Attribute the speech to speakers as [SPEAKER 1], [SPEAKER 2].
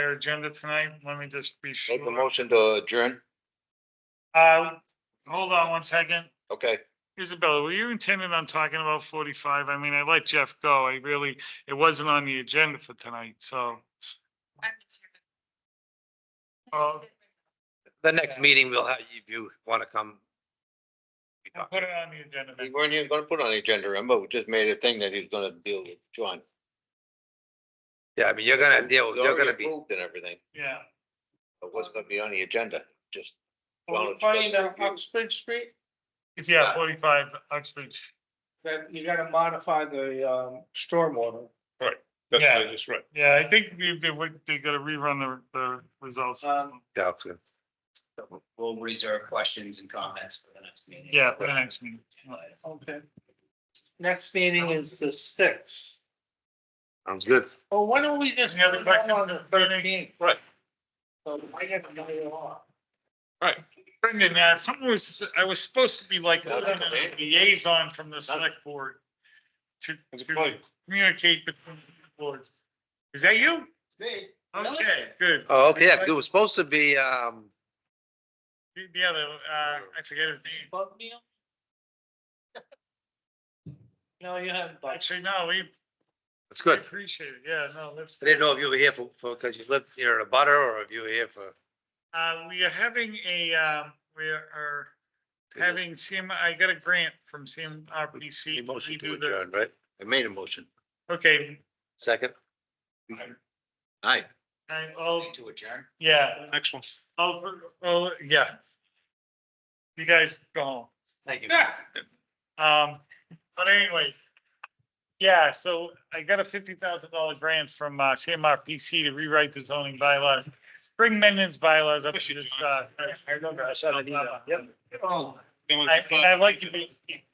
[SPEAKER 1] our agenda tonight. Let me just be
[SPEAKER 2] Make a
[SPEAKER 1] sure.
[SPEAKER 2] motion to adjourn,
[SPEAKER 1] Uh, hold on one second.
[SPEAKER 2] okay?
[SPEAKER 1] Isabella, were you intending on talking about forty-five? I mean, I let Jeff go. I really, it wasn't on the agenda for tonight, so.
[SPEAKER 3] I'm just here.
[SPEAKER 1] Oh.
[SPEAKER 4] The next meeting, we'll have, if you want to come. we
[SPEAKER 1] I'll
[SPEAKER 4] talk.
[SPEAKER 1] Put it on the agenda.
[SPEAKER 2] We
[SPEAKER 1] then.
[SPEAKER 2] weren't even gonna put it on the agenda, remember, we just made a thing that he's gonna deal with, John.
[SPEAKER 4] Yeah, I mean, you're gonna deal,
[SPEAKER 2] It's
[SPEAKER 4] you're
[SPEAKER 2] already
[SPEAKER 4] gonna be,
[SPEAKER 2] approved And everything,
[SPEAKER 1] Yeah.
[SPEAKER 2] but what's gonna be on the agenda, just. Well,
[SPEAKER 5] Well,
[SPEAKER 2] it's
[SPEAKER 5] funny,
[SPEAKER 2] got-
[SPEAKER 5] the Uxbridge Street,
[SPEAKER 1] If you have forty-five Uxbridge,
[SPEAKER 5] that you gotta modify the um stormwater.
[SPEAKER 6] That's
[SPEAKER 1] Yeah.
[SPEAKER 6] just right.
[SPEAKER 1] yeah, I think we, they would, they gotta rerun the, the results.
[SPEAKER 5] Um,
[SPEAKER 4] yeah, so
[SPEAKER 7] We'll reserve questions and comments for the next meeting.
[SPEAKER 1] Yeah, for the next meeting.
[SPEAKER 5] Okay. Next meeting is the sixth.
[SPEAKER 4] sounds good.
[SPEAKER 5] Well, why don't we just
[SPEAKER 1] Any other
[SPEAKER 5] have
[SPEAKER 1] questions?
[SPEAKER 5] on the thirteenth?
[SPEAKER 6] Right.
[SPEAKER 5] So I get to know you all.
[SPEAKER 1] Brendan, uh, something was, I was supposed to be like a liaison from the select board to, to communicate between the boards. Is that you?
[SPEAKER 5] Me?
[SPEAKER 1] Okay, good.
[SPEAKER 4] Oh, okay, yeah, 'cause it was supposed to be, um,
[SPEAKER 1] The the other, uh, I forget his name.
[SPEAKER 5] Bug meal? No, you haven't, but
[SPEAKER 1] Actually, no, we
[SPEAKER 4] it's
[SPEAKER 1] we
[SPEAKER 4] good.
[SPEAKER 1] appreciate it. Yeah, no, that's.
[SPEAKER 4] I didn't know if you were here for, for, because you lived near a butter or if you were here for.
[SPEAKER 1] Uh, we are having a, um, we are having CM, I got a grant from CMRPC.
[SPEAKER 4] Motion
[SPEAKER 1] We
[SPEAKER 4] to
[SPEAKER 1] do the-
[SPEAKER 4] adjourn, right?
[SPEAKER 2] I made a motion,
[SPEAKER 1] Okay,
[SPEAKER 4] Second,
[SPEAKER 2] aye.
[SPEAKER 1] I, oh,
[SPEAKER 7] To adjourn.
[SPEAKER 1] yeah,
[SPEAKER 6] Excellent.
[SPEAKER 1] oh, oh, yeah. You guys go home.
[SPEAKER 7] Thank you.
[SPEAKER 1] Um, but anyway. Yeah, so I got a fifty thousand dollar grant from uh CMR PC to rewrite the zoning bylaws. Bring Mendon's bylaws up
[SPEAKER 7] Oh,
[SPEAKER 1] to this, uh. I remember, I saw that email. Yep.
[SPEAKER 6] That was-
[SPEAKER 1] I, and I like to be.